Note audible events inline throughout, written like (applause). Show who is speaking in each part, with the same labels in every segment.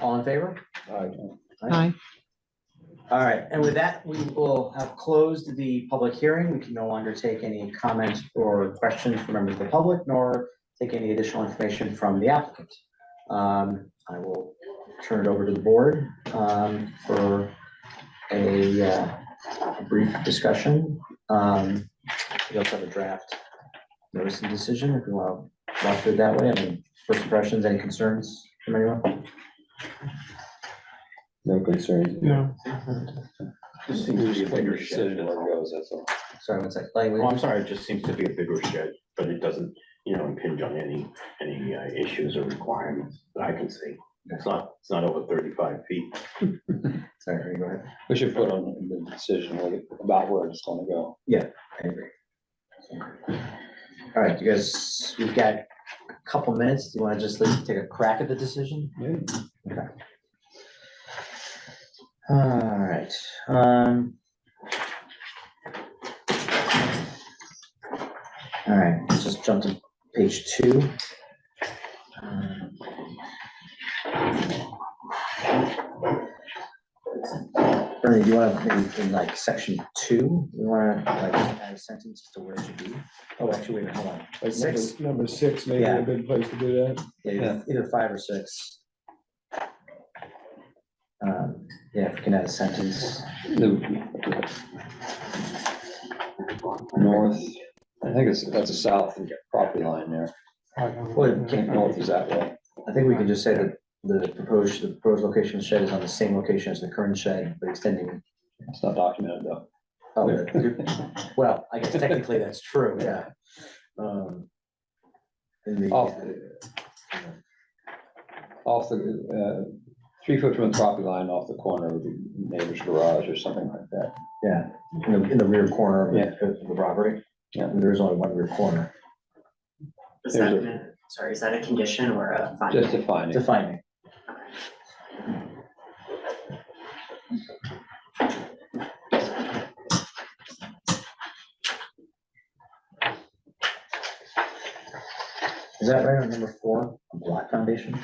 Speaker 1: All in favor?
Speaker 2: Aye.
Speaker 3: Aye.
Speaker 1: All right, and with that, we will have closed the public hearing. We can no longer take any comments or questions from members of the public, nor take any additional information from the applicant. Um, I will turn it over to the board, um, for a, uh, brief discussion. Um, we also have a draft notice and decision, if you want to walk through it that way. I mean, first impressions, any concerns from anyone?
Speaker 2: No concerns.
Speaker 4: No,
Speaker 2: Just seems to be a bigger
Speaker 5: Just
Speaker 2: shed
Speaker 5: seems to be
Speaker 2: than
Speaker 5: a bigger shed.
Speaker 2: one goes, that's all.
Speaker 1: Sorry, one second. Like, we-
Speaker 5: Well, I'm sorry, it just seems to be a bigger shed, but it doesn't, you know, impinge on any, any uh, issues or requirements that I can see. It's not, it's not over thirty-five feet.
Speaker 1: Sorry, go ahead.
Speaker 2: We should put on the decision what it- about where it's gonna go.
Speaker 1: I agree. All right, you guys, we've got a couple minutes. Do you want to just at least take a crack at the decision?
Speaker 2: Yeah.
Speaker 1: Okay. All right, um. All right, let's just jump to page two. Um, Ernie, do you want to, maybe in like section two, you want to like add a sentence as to where it should be? Oh, actually, wait, hold on.
Speaker 4: like number,
Speaker 1: Six.
Speaker 4: number six may be
Speaker 1: Yeah.
Speaker 4: a good place to do that.
Speaker 1: Yeah, either- either five or six. Um, Yeah, if we can add a sentence.
Speaker 2: The- North, I think it's, that's a south property line there.
Speaker 1: Well, can-
Speaker 2: North is that way.
Speaker 1: I think we can just say that the proposed, the proposed location of the shed is on the same location as the current shed, but extending.
Speaker 2: It's not documented though.
Speaker 1: oh, the- Well, I guess technically that's true, yeah. Um, in the-
Speaker 2: Off, the- off the, uh, three foot from the property line off the corner of the neighbor's garage or something like that.
Speaker 1: Yeah, in the, in the rear corner of
Speaker 2: Yeah.
Speaker 1: the- of the property.
Speaker 2: Yeah.
Speaker 1: There is only one rear corner.
Speaker 6: Is
Speaker 2: There's
Speaker 6: that,
Speaker 2: a-
Speaker 6: a- sorry, is that a condition or a finding?
Speaker 2: Just defining.
Speaker 1: Defining. Is that right on number four, on block foundation?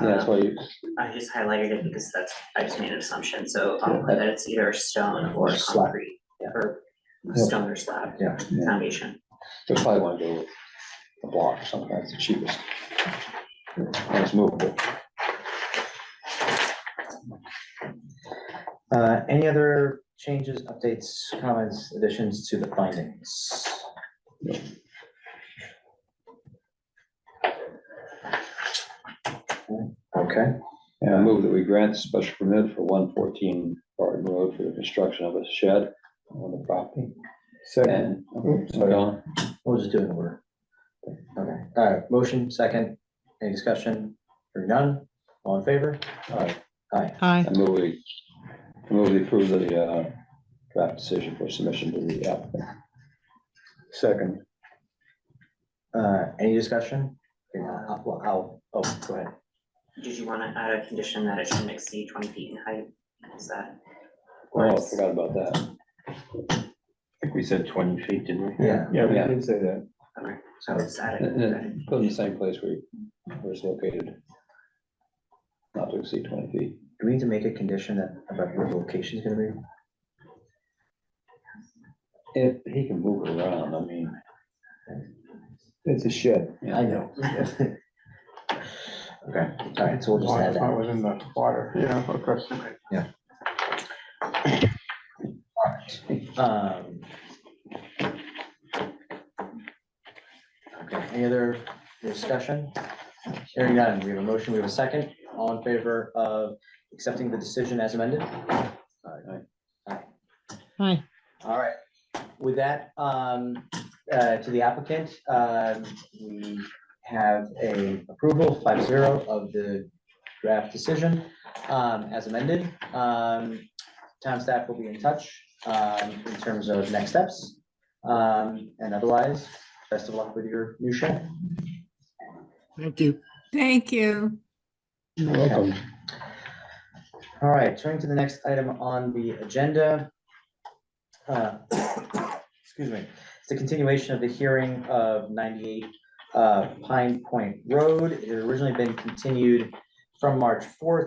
Speaker 2: Yeah, that's why you,
Speaker 6: Uh, I just highlighted it because that's, I just made an assumption, so I'll put that it's either stone or
Speaker 1: Or slab,
Speaker 6: concrete,
Speaker 1: yeah.
Speaker 6: or
Speaker 2: Yeah.
Speaker 6: stone or slab
Speaker 1: Yeah.
Speaker 2: yeah.
Speaker 6: foundation.
Speaker 2: They probably wanna go with a block or something, that's the cheapest. And it's movable.
Speaker 1: Uh, any other changes, updates, comments, additions to the findings? Okay.
Speaker 2: And I move that we grant the special permit for one fourteen Barton Road for the construction of a shed on the property.
Speaker 4: Second,
Speaker 2: And, uh, so on.
Speaker 1: We'll just do it in order. Okay, all right, motion, second, any discussion, or none, all in favor?
Speaker 2: Aye.
Speaker 1: Aye,
Speaker 3: Aye.
Speaker 2: I move we, I move we approve the, uh, draft decision for submission to the applicant. Second.
Speaker 1: uh, any discussion? Here, I'll- I'll- I'll- oh, go ahead.
Speaker 6: Did you wanna add a condition that it shouldn't exceed twenty feet in height? Is that?
Speaker 2: Oh, I forgot about that.
Speaker 5: I think we said twenty feet, didn't we?
Speaker 1: Yeah,
Speaker 4: yeah, we
Speaker 2: Yeah.
Speaker 4: did say that.
Speaker 6: Alright,
Speaker 1: so,
Speaker 6: let's add it.
Speaker 2: And-
Speaker 6: Okay.
Speaker 2: and Put in the same place where, where it's located. Not to exceed twenty feet.
Speaker 1: do we need to make a condition that, about where the location is gonna be?
Speaker 2: If he can move it around, I mean.
Speaker 4: It's a shed.
Speaker 1: (laughs)
Speaker 2: yeah.
Speaker 1: know. Okay, all right, so we'll just add that.
Speaker 4: within the water, yeah, of course.
Speaker 1: Um. Okay, any other discussion? Hearing none, we have a motion, we have a second, all in favor of accepting the decision as amended?
Speaker 3: Aye.
Speaker 1: All right, with that, um, uh, to the applicant, um, we have a approval five zero of the draft decision, um, as amended. Um, town staff will be in touch, um, in terms of next steps. Um, and otherwise, best of luck with your new shed.
Speaker 4: Thank you.
Speaker 7: Thank you.
Speaker 4: You're welcome.
Speaker 1: All right, turning to the next item on the agenda. Uh, (coughs) Excuse me, it's the continuation of the hearing of ninety-eight uh, Pine Point Road. It had originally been continued from March fourth